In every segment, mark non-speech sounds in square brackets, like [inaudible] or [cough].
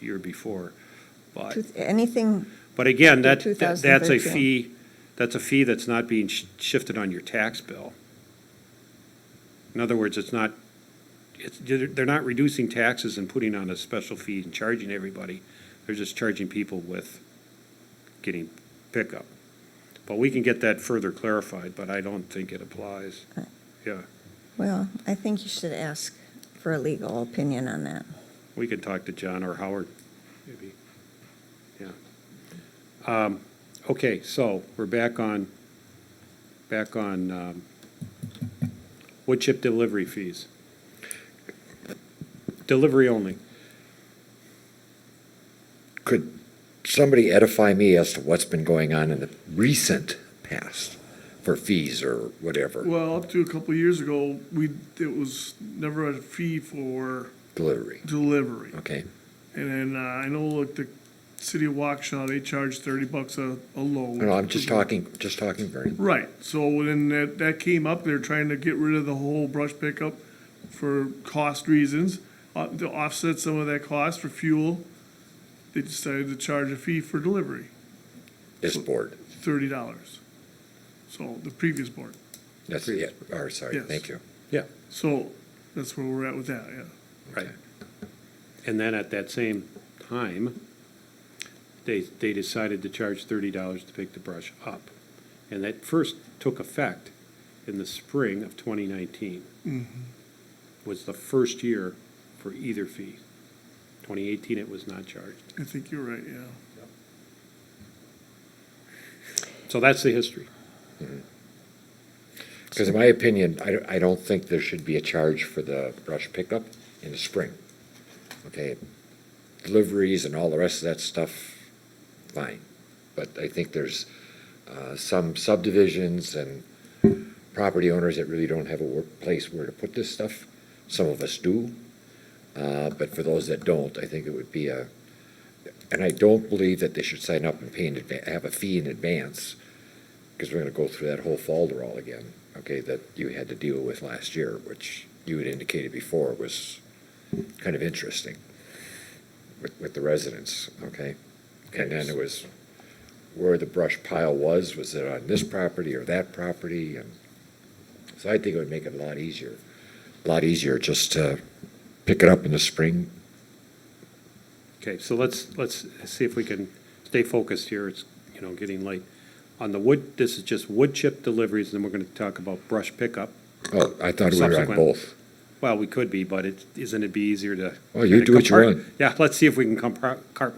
year before. But, Two- Anything, but again, that, Two that- thousand that's a thirteen. fee, that's a fee that's not being sh- shifted on your tax bill. In other words, it's not, it's, they're they're not reducing taxes and putting on a special fee and charging everybody. They're just charging people with getting pickup. But we can get that further clarified, but I don't think it applies. Yeah, well, I think you should ask for a legal opinion on that. we could talk to John or Howard, maybe. Yeah. Um, Okay, so we're back on, back on um, wood chip delivery fees. Delivery only. Could somebody edify me as to what's been going on in the recent past for fees or whatever, Well, up to a couple of years ago, we, it was never a fee for delivery? delivery. Okay, And then uh, I know, like, the city of Waukesha, they charge thirty bucks a, a load. no, I'm just talking, just talking very, Right, so when that, that came up, they're trying to get rid of the whole brush pickup for cost reasons, uh, to offset some of that cost for fuel. They decided to charge a fee for delivery, this board. thirty dollars. So, the previous board, That's, yeah, or sorry, Yes. thank you. Yeah. so that's where we're at with that, yeah. Right. And then at that same time, they, they decided to charge thirty dollars to pick the brush up. And that first took effect in the spring of twenty nineteen. Was the first year for either fee. Twenty eighteen, it was not charged. I think you're right, yeah. So that's the history. Because in my opinion, I, don't- I don't think there should be a charge for the brush pickup in the spring. Okay, deliveries and all the rest of that stuff, fine. But I think there's, uh, some subdivisions and property owners that really don't have a work, place where to put this stuff. Some of us do. Uh, but for those that don't, I think it would be a, and I don't believe that they should sign up and pay in advance, have a fee in advance because we're gonna go through that whole folder all again, okay, that you had to deal with last year, which you had indicated before was kind of interesting with, with the residents, okay? And then it was where the brush pile was, was it on this property or that property, and so I think it would make it a lot easier, a lot easier just to pick it up in the spring. Okay, so let's, let's see if we can stay focused here, it's, you know, getting late. On the wood, this is just wood chip deliveries, and then we're gonna talk about brush pickup. Oh, I thought we were on Subsequent. both. Well, we could be, but it, isn't it be easier to? Well, you do what you want. Yeah, let's see if we can compart, carp,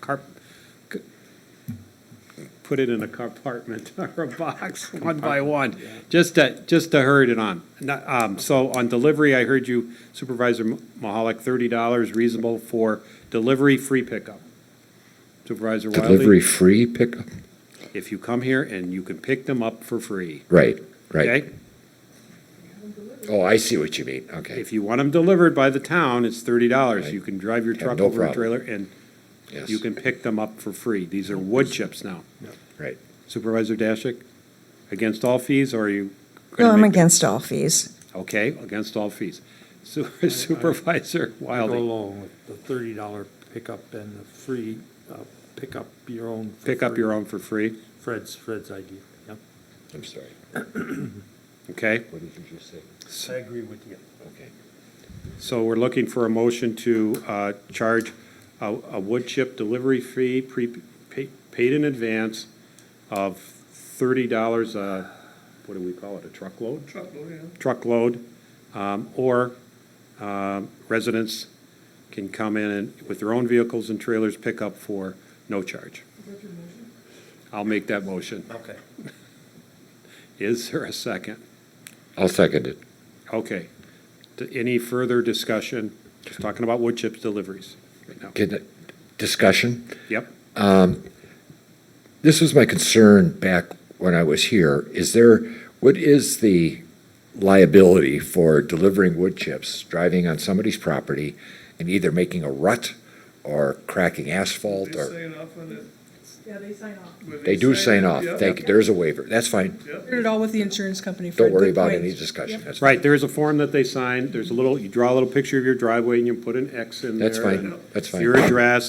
carp, c- put it in a compartment [laughs] or a box, one by one, just to, just to herd it on. Not- um, so on delivery, I heard you Supervisor Mahalik, thirty dollars reasonable for delivery, free pickup. Supervisor Delivery Wiley, free pickup, if you come here and you can pick them up for free, right, right. okay? Oh, I see what you mean, okay, If you want them delivered by the town, it's thirty dollars. Right. You can drive your Have truck no over a problem. trailer and yes, You can pick them up for free. These are wood chips now. right. Supervisor Dashick, against all fees, or are you? gonna No, I'm make- against all fees. Okay, against all fees. Su- Supervisor go Wiley, along with the thirty dollar pickup and the free, uh, pick up your own. for pick up free. your own for free, Fred's, Fred's idea, yep. I'm sorry. okay? What did you just say? I agree with you. Okay. So we're looking for a motion to uh, charge a a wood chip delivery fee pre pay- paid in advance of $30, uh, what do we call it, a truckload? Truckload, yeah. truckload, um, or um, residents can come in and, with their own vehicles and trailers, pick up for no charge. I'll make that motion. Okay. [laughs] Is there a second? I'll second it. Okay. D- Any further discussion? Just talking about wood chips deliveries right now. Can, discussion? Yep. This was my concern back when I was here. Is there, what is the liability for delivering wood chips, driving on somebody's property and either making a rut or cracking asphalt They or? say it often, it's Yeah, they sign off. They do sign off, Yep. Thank you. there's a waiver, that's fine, Yep. Cleared it all with the insurance company. Fred. don't worry Good about point. any discussion, Yep. that's. Right, there is a form that they sign, there's a little, you draw a little picture of your driveway and you put an X in there. That's fine. and That's fine. Your address